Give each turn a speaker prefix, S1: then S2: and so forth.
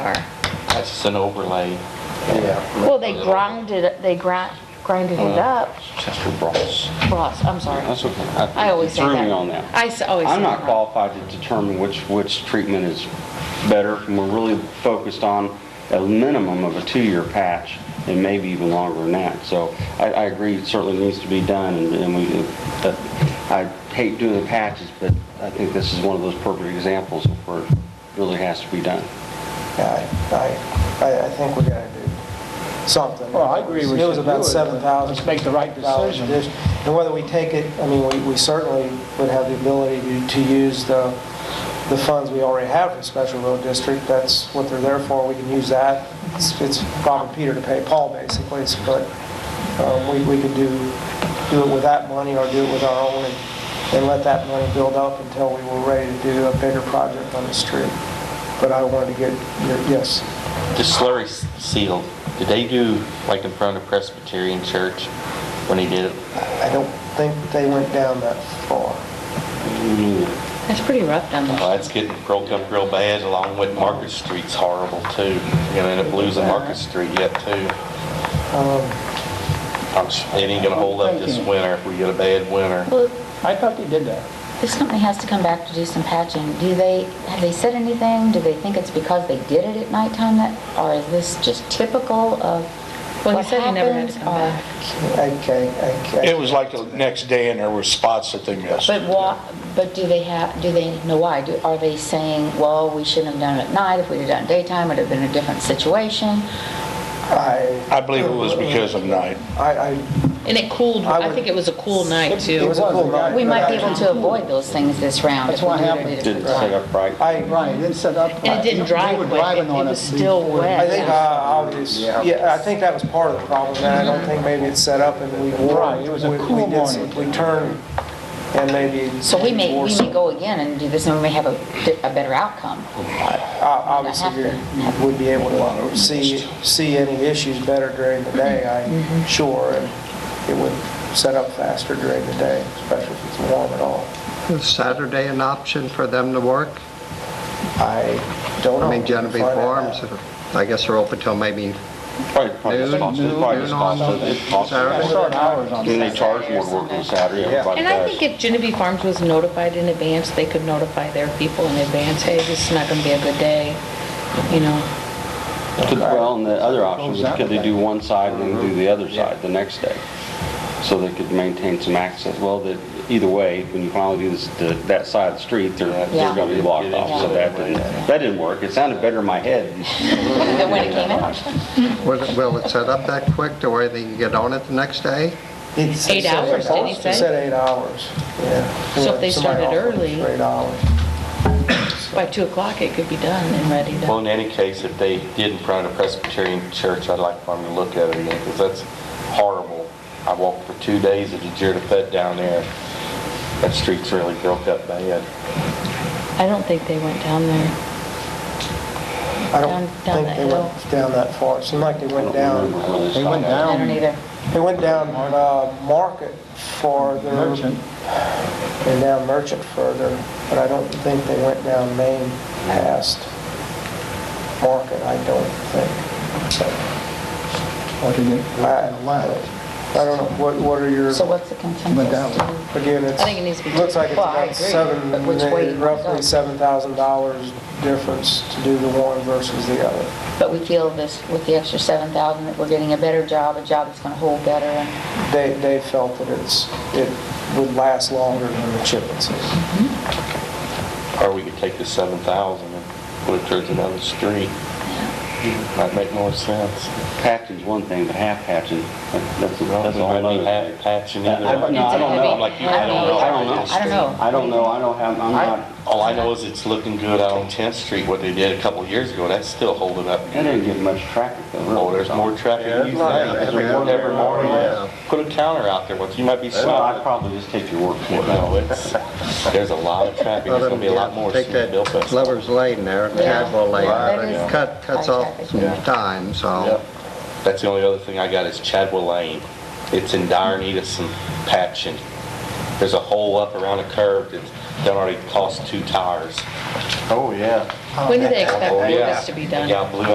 S1: Or,
S2: That's just an overlay.
S3: Yeah.
S1: well, they grounded, it- they grind, grinded it
S4: Uh,
S1: up,
S2: Chester Bros.
S1: Ross, I'm sorry.
S4: That's okay.
S1: I always say
S4: You
S1: that.
S4: threw me on that.
S1: I s- always say
S4: I'm not
S1: that.
S4: qualified to determine which, which treatment is better, and we're really focused on a minimum of a two-year patch, and maybe even longer than that. So I, I agree, it certainly needs to be done, and and we, but I hate doing the patches, but I think this is one of those perfect examples of where it really has to be done.
S3: Yeah, I, I, I think we gotta do something.
S5: Well, I agree we
S3: It was
S5: should
S3: about
S5: do it.
S3: seven thousand.
S5: Let's make the right decision.
S3: And whether we take it, I mean, we, we certainly would have the ability to, to use the, the funds we already have for special road district. That's what they're there for. We can use that. It's, it's Bob and Peter to pay Paul, basically, It's- but, um, we, we could do, do it with that money or do it with our own and, and let that money build up until we were ready to do a bigger project on the street. But I wanted to get, your- yes.
S2: The slurry s- seal, did they do like in front of Presbyterian Church when he did it?
S3: I don't think they went down that far.
S1: It's pretty rough down there.
S2: Well, that's getting broke up real bad along with Market Street's horrible too. You're gonna end up losing Market Street yet too. I'm, s- it ain't gonna hold up this winter if we get a bad winter.
S6: Well,
S5: I thought they did that.
S6: this company has to come back to do some patching. Do they, have they said anything? Do they think it's because they did it at nighttime that, or is this just typical of
S1: Well, he
S6: what
S1: said he never had to
S6: happens?
S1: come
S6: or-
S1: back.
S3: Okay, okay.
S7: It was like the next day and there were spots that they missed.
S6: But why, but do they have, do they know why? Do- Are they saying, well, we shouldn't have done it at night, if we'd have done it daytime, it'd have been a different situation?
S3: I,
S7: I believe it was because of night.
S3: I,
S1: And it cooled,
S3: I
S1: I
S3: would-
S1: think it was a cool night
S3: it
S1: too.
S3: was a cool night.
S6: We might be able to avoid those things this round if
S5: That's
S6: we
S5: what
S6: do it
S5: happened.
S6: at a
S4: Didn't
S6: different
S4: set
S6: time.
S4: up right.
S3: I,
S5: Right, it didn't set up.
S1: And it didn't dry
S5: They were
S1: quick.
S5: driving
S1: It
S5: on
S1: was still
S5: before.
S1: wet.
S3: I think I, I'll just, yeah, I think that was part of the problem, and I don't think maybe it's set up and we wore.
S5: Right, it was a
S3: we- we
S5: cool
S3: did some-
S5: morning.
S3: We turned and maybe.
S6: So we may,
S3: wore
S6: we may
S3: some-
S6: go again and do this, and we may have a, di- a better outcome.
S3: o- Obviously, you're- you would be able to see, see any issues better during the day,
S6: Mm-hmm.
S3: I'm sure, and it would set up faster during the day, especially if it's warm at all.
S8: Is Saturday an option for them to work?
S3: I don't know.
S8: I mean, Genevieve
S3: Find that
S8: Farms,
S3: out.
S8: I guess they're open till maybe
S4: Probably, probably it's
S8: Noon,
S4: possible,
S8: noon,
S4: probably it's
S8: noon on
S4: possible, it's possible.
S8: Saturday.
S5: Start hours on
S4: I mean, they charge more to work on Saturday, everybody
S1: And I think
S4: does.
S1: if Genevieve Farms was notified in advance, they could notify their people in advance, hey, this is not gonna be a good day, you know?
S4: Could- Well, and the other option
S5: Goes
S4: is
S5: that
S4: could they
S5: way.
S4: do one side and then do the other side the next day? So they could maintain some access. Well, that, either way, when you finally do this, the- that side of the street, they're, they're
S6: Yeah.
S4: gonna be blocked off, so that didn't, that didn't work. It sounded better in my head.
S6: Than when it came out.
S8: Will it- will it set up that quick to where they can get on it the next day?
S3: It's-
S1: Eight
S3: it's-
S1: hours, didn't he
S3: it
S1: say?
S3: said eight hours, yeah.
S1: So if they
S3: Somebody
S1: started
S3: offered
S1: early-
S3: for Eight hours.
S1: By 2 o'clock, it could be done and ready
S2: Well,
S1: to,
S2: in any case, if they did in front of Presbyterian Church, I'd like for them to look at it again, because that's horrible. I walked for two days at the Jirapet down there. That street's really broke up bad.
S1: I don't think they went down there.
S3: I don't
S1: Down- down
S3: think
S1: that
S3: they
S1: hill.
S3: went down that far. It seemed like they
S4: I
S3: went
S4: don't
S3: down,
S4: remember where
S5: They went
S4: stopped.
S6: I
S5: down.
S6: don't either.
S3: they went down uh, Market farther.
S5: Merchant.
S3: And down Merchant further, but I don't think they went down Main past Market, I don't think. So,
S5: Or they didn't go
S3: I
S5: to the left.
S3: I don't know, what, what are your,
S6: So what's the
S5: Went down.
S6: consensus? Do you-
S3: again, it's.
S1: I think it needs to be-
S3: Looks like it's
S6: Well, I
S3: about
S6: agree,
S3: seven,
S6: but which way you want it
S3: roughly
S6: done.
S3: seven thousand dollars difference to do the one versus the other.
S6: But we feel this, with the extra 7,000, that we're getting a better job, a job that's going to hold better. and-
S3: They, they felt that it's, it would last longer than the chip and seal.
S2: Or we could take the seven thousand and put it towards another street. Might make more sense.
S4: Patching's one thing, but half patching, that- that's, a- that's a whole
S2: Might be
S4: other thing.
S2: half patching
S4: I-
S2: either.
S4: I- no, I don't know.
S2: Like you, I don't know.
S4: I don't know.
S6: I don't know.
S4: I don't know, I don't have, I'm not,
S2: All I know is it's looking good out on Tenth Street, what they did a couple of years ago, that's still holding up.
S4: I didn't get much traffic though. really.
S2: Oh, there's more traffic than you think. There's more every
S8: Yeah.
S2: morning. Put a counter out there, once you might be
S4: Well, I'd
S2: stopped.
S4: probably just take your word for it.
S2: No, it's, there's a lot of traffic, there's gonna be a lot more
S8: Take
S2: soon
S8: that
S2: built. that's-
S8: Lover's Lane there,
S6: Yeah.
S8: Cadwell Lane,
S6: That
S8: that
S6: is-
S8: cut- cuts
S6: Yeah.
S8: off some time,
S2: Yep.
S8: so.
S2: That's the only other thing I got is Chadwell Lane. It's in dire need of some patching. there's a hole up around a curve that's done already cost two tires.
S9: Oh, yeah.
S1: When do they expect all
S2: Oh, yeah.
S1: this to be done?
S2: Yeah, blew